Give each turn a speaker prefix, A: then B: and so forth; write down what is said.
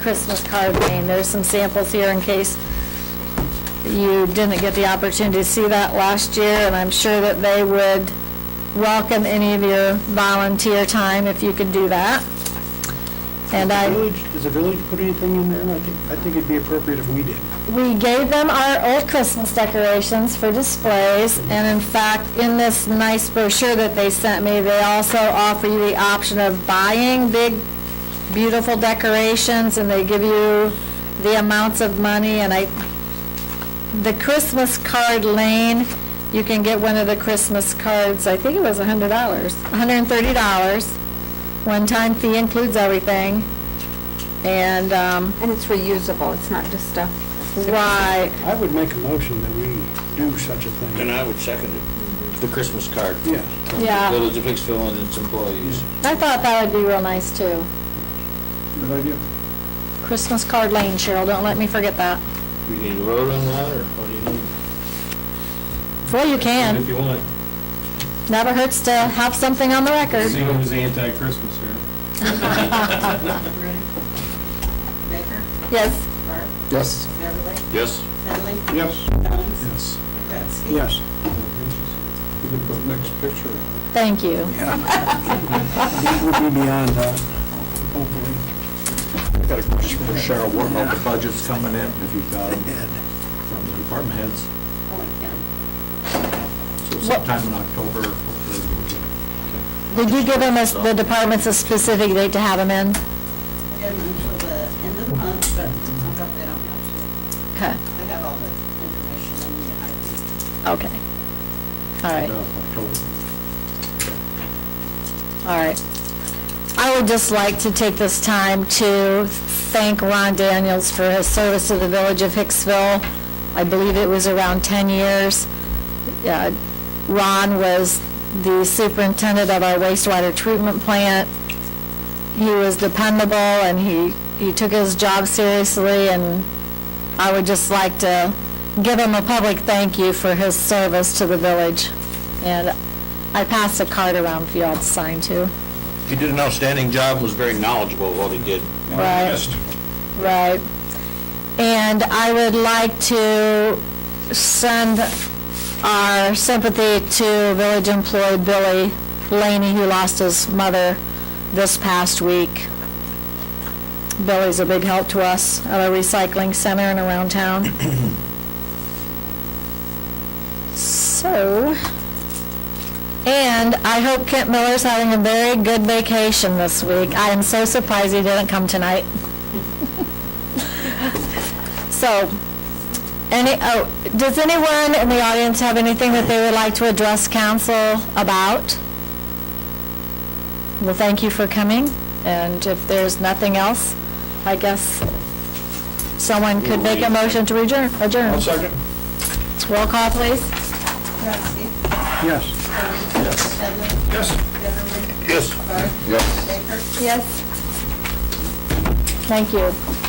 A: Christmas card game. There's some samples here in case you didn't get the opportunity to see that last year, and I'm sure that they would welcome any of your volunteer time if you could do that. And I.
B: Does the village, does the village put anything in there? I think, I think it'd be appropriate if we did.
A: we gave them our old Christmas decorations for displays, and in fact, in this nice brochure that they sent me, they also offer you the option of buying big, beautiful decorations, and they give you the amounts of money, and I, the Christmas card lane, you can get one of the Christmas cards, I think it was a hundred dollars, hundred and thirty dollars, one-time fee includes everything, and, um,
C: And it's reusable, it's not just stuff.
A: right,
B: I would make a motion that we do such a
D: And
B: thing.
D: I would second it, the Christmas card.
B: Yes.
A: yeah.
D: Village of Hicksville and its employees.
A: I thought that would be real nice too.
B: Good idea.
A: Christmas card lane, Cheryl, don't let me forget that.
D: You need a vote on that, or what do you need?
A: Well, you can.
E: If you want,
A: Never hurts to have something on the
E: see
A: record.
E: who's anti-Christmas here.
F: Ready? Baker?
A: Yes,
F: Barb?
B: Yes.
F: Beverly?
D: Yes.
F: Dudley?
B: Yes.
F: Jones?
B: Yes.
F: McCrasky?
B: Yes. You can put next picture on.
A: thank you.
B: Yeah. We'll be beyond that, hopefully.
G: I've got a question for Cheryl, what about the budgets coming in, if you've got them, from the department heads?
F: Oh, yeah.
G: So sometime in October, hopefully, we'll get-
A: Did you give them, a- the departments a specific date to have them in?
F: And until the end of the month, but I got that on my sheet.
A: Okay,
F: I got all the information I need. I think.
A: okay. All right.
G: uh, October.
A: All right. I would just like to take this time to thank Ron Daniels for his service to the village of Hicksville. I believe it was around 10 years. Uh, Ron was the superintendent of our wastewater treatment plant. He was dependable, and he, he took his job seriously, and I would just like to give him a public thank you for his service to the village. And I passed a card around for y'all to sign too.
D: He did an outstanding job, was very knowledgeable of what he did.
A: Right. Right. And I would like to send our sympathy to village employee Billy Laney, who lost his mother this past week. Billy's a big help to us at our recycling center and around town. So, and I hope Kent Miller's having a very good vacation this week. I am so surprised he didn't come tonight. So, any, oh, does anyone in the audience have anything that they would like to address council about? Well, thank you for coming, and if there's nothing else, I guess someone could make a motion to adjourn. Adjourn.
B: second.
A: Roll call, please.
F: McCrasky?
B: Yes.
F: Dudley?
B: Yes.
F: Beverly?
D: Yes.
F: Barb? Yes. Baker?
A: Yes. Thank you.